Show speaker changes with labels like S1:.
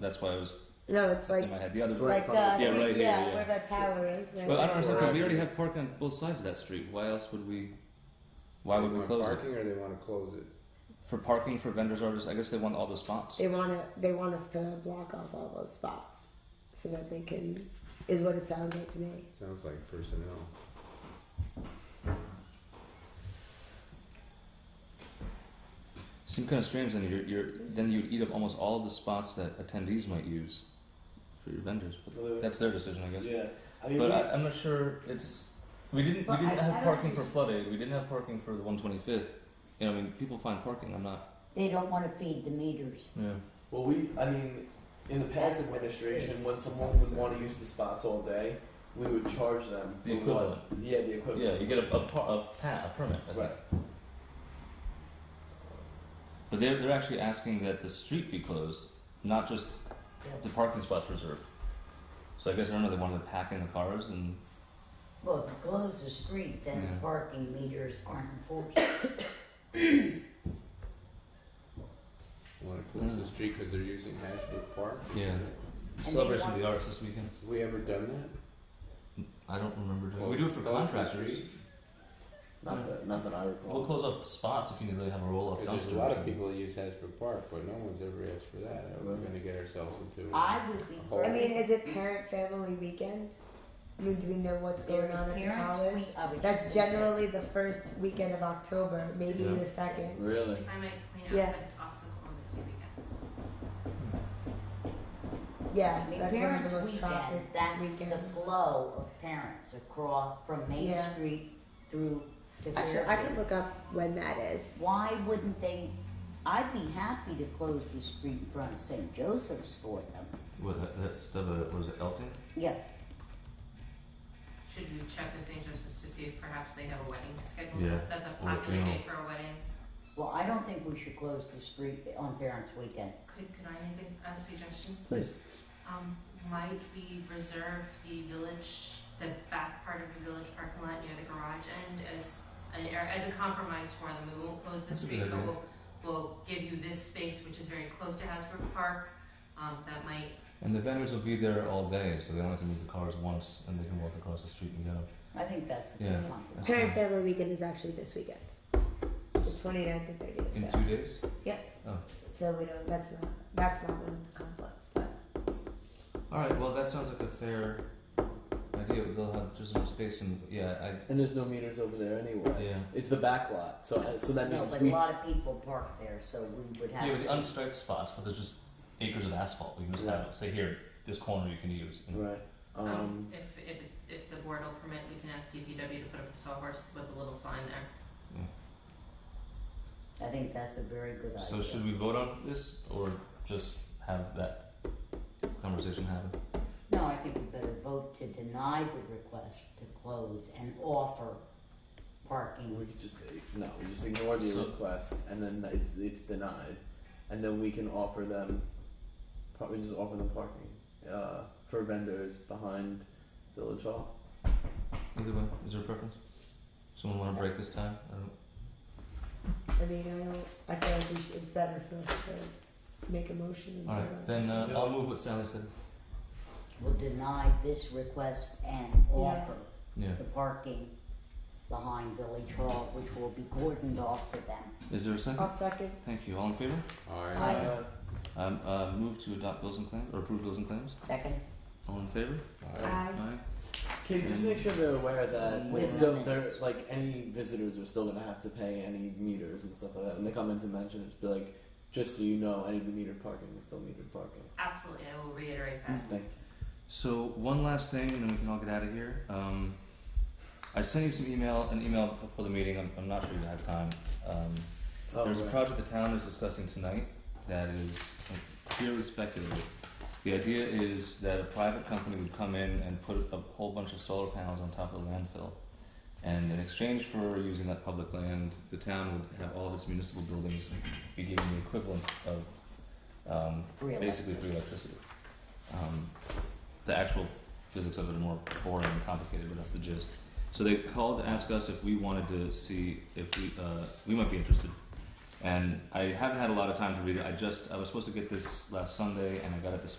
S1: That's why I was
S2: No, it's like
S1: in my head. The other
S2: it's like uh,
S1: Yeah, right here, yeah.
S2: where the tower is. Um, right?
S1: Well, I don't understand because we
S3: Right.
S1: already have parking on both sides of that street. Why else would we? Why
S3: They
S1: would we
S3: want
S1: close
S3: parking or they want to close it?
S1: it for parking for vendors artists? I guess they want all the spots.
S2: They want to. They want us to block off all those spots so that they can. Is what it sounds like to me.
S3: Sounds like personnel.
S1: Seems kind of strange. Then you're, you're then you eat up almost all the spots that attendees might use for your vendors. But
S4: Well,
S1: that's their decision, I guess.
S4: Yeah, I mean,
S1: But
S4: we-
S1: I, I'm not sure it's. We didn't. We
S2: Well,
S1: didn't
S2: I- I
S1: have
S2: don't
S1: parking for
S2: think-
S1: flooded. We didn't have parking for the 125th. You know, I mean, people find parking. I'm not.
S5: They don't want to feed the meters.
S1: Yeah.
S4: well, we, I mean, in the past administration, when someone would want to use the spots all day, we would charge them
S1: The
S4: for what-
S1: equivalent.
S4: Yeah, the equivalent.
S1: Yeah. You get a a, par- a, pa- a permit. I think.
S4: right.
S1: But they're they're actually asking that the street be closed, not just the parking spots reserved. So I guess I don't know. They wanted to pack in the cars and
S5: Well, if you close the street, then
S1: Yeah.
S5: the parking meters aren't enforced.
S3: Want to close
S1: Yeah.
S3: the street because they're using Ashbrook Park?
S1: Yeah.
S5: they
S1: celebration of
S5: want-
S1: the arts this weekend.
S3: Have we ever done that?
S1: Mm, I don't remember doing. we
S3: Close-
S1: do it for
S3: close the
S1: contractors.
S3: street?
S4: Not that, not that I recall.
S1: We'll close up spots if you really have a roll off
S3: 'Cause
S1: dumpster.
S3: there's a
S1: or
S3: lot of
S1: something.
S3: people that use Ashbrook Park, but no one's ever asked for that. We're going to get ourselves into.
S5: I would be.
S3: I
S2: I mean, is
S5: perfect.
S2: it parent family weekend? I mean, do we know what's
S5: There
S2: going
S5: is
S2: on at the
S5: parents'
S2: college?
S5: week. I was
S2: That's
S5: just gonna say.
S2: generally the first weekend of October, maybe
S4: Yeah.
S2: the second.
S4: Really?
S6: If I might point
S2: Yeah.
S6: out that it's also Columbus Day weekend.
S2: Yeah,
S5: I mean,
S2: that's one of
S5: parents'
S2: the most
S5: weekend.
S2: trafficked
S5: That's the
S2: weekends.
S5: flow of parents across from Main
S2: Yeah.
S5: Street through to
S2: Actually, I could
S5: Fairfield.
S2: look up when that is.
S5: Why wouldn't they? I'd be happy to close the street in front of St. Joseph's for them.
S1: What that- that's the what is it Elton?
S5: Yeah,
S6: Should we check with St. Joseph's to see if perhaps they have a wedding scheduled?
S1: Yeah,
S6: That's a
S1: or a
S6: popular day
S1: funeral.
S6: for a wedding.
S5: well, I don't think we should close the street on parents' weekend.
S6: Could, could I make a, a suggestion?
S5: Please.
S6: Um, might we reserve the village, the back part of the village parking lot near the garage end as an, ar- as a compromise for them? We won't close the
S1: That's a good
S6: street, but
S1: idea.
S6: we'll, we'll give you this space, which is very close to Hasbrook Park. Um, that might,
S1: And the vendors will be there all day, so they don't have to move the cars once, and they can walk across the street and get them.
S5: I think that's a good
S1: Yeah.
S5: compromise.
S1: That's
S2: Parent
S1: fine.
S2: family weekend is actually this weekend, the 29th and 30th.
S1: In
S2: so.
S1: two days.
S2: so we don't. That's not. That's not one of the conflicts, but.
S1: All right. Well, that sounds like a fair idea. They'll have just enough space, and yeah,
S4: And there's no meters over there
S1: I
S4: anyway.
S1: yeah.
S4: It's the back lot, so so that
S5: No,
S4: means
S5: but a
S4: we.
S5: lot of people park there, so we would have.
S1: Yeah, with the unstriped spots, but there's just acres of asphalt. We can just have say here, this corner you can use. And
S4: Right. Um,
S6: um, if, if, if the board will permit, we can ask DPW to put up a sawhorse with a little sign there.
S5: I think that's a very good idea.
S1: So should we vote on this or just have that conversation happen?
S5: No, I think we better vote to deny the request to close and offer
S4: we
S5: parking.
S4: could just no, we just ignore the
S1: So-
S4: request, and then it's it's denied, and then we can offer them, probably just offer them parking, uh, for vendors behind Village Hall.
S1: Either way, is there a preference? Someone want to break this time? I don't.
S2: I mean, I don't. I feel like we should, it's better for us to make a motion. and
S1: All
S2: vote on
S1: right, then uh,
S4: Yeah.
S1: I'll move what Sally said.
S5: We'll deny this request and offer
S1: Yeah.
S5: the parking behind Village Hall, which will be cordoned off for them.
S1: Is there a
S2: it.
S1: second?
S2: I'll second.
S1: Thank you. All in favor?
S3: Alright.
S5: Aye.
S4: Uh,
S1: Um, uh, move to adopt bills and claims or approve bills and claims.
S5: Second?
S1: All in favor?
S2: Aye.
S1: Aye.
S4: Can you just make sure they're aware that
S1: Wait a
S4: it's still
S5: minute.
S4: they're like any visitors are still gonna have to pay any meters and stuff like that when they come in to mention it. Just be like, just so you know, any of the metered parking is still metered parking.
S6: Absolutely, I will reiterate that.
S4: Thank
S1: So one last thing, and then we can all get out of here. Um, I sent you some email, an email before the meeting. I'm, I'm not sure you have time. Um,
S4: you. Oh,
S1: There's a
S4: right.
S1: project the town is discussing tonight that is purely speculative. The idea is that a private company would come in and put a whole bunch of solar panels on top of the landfill. And in exchange for using that public land, the town would have all of its municipal buildings be given the equivalent of um,
S5: Free
S1: basically
S5: electricity.
S1: free electricity. Um, the actual physics of it are more boring and complicated, but that's the gist. So they called to ask us if we wanted to see if we uh, we might be interested And I haven't had a lot of time to read it. I just I was supposed to get this last Sunday, and I got it this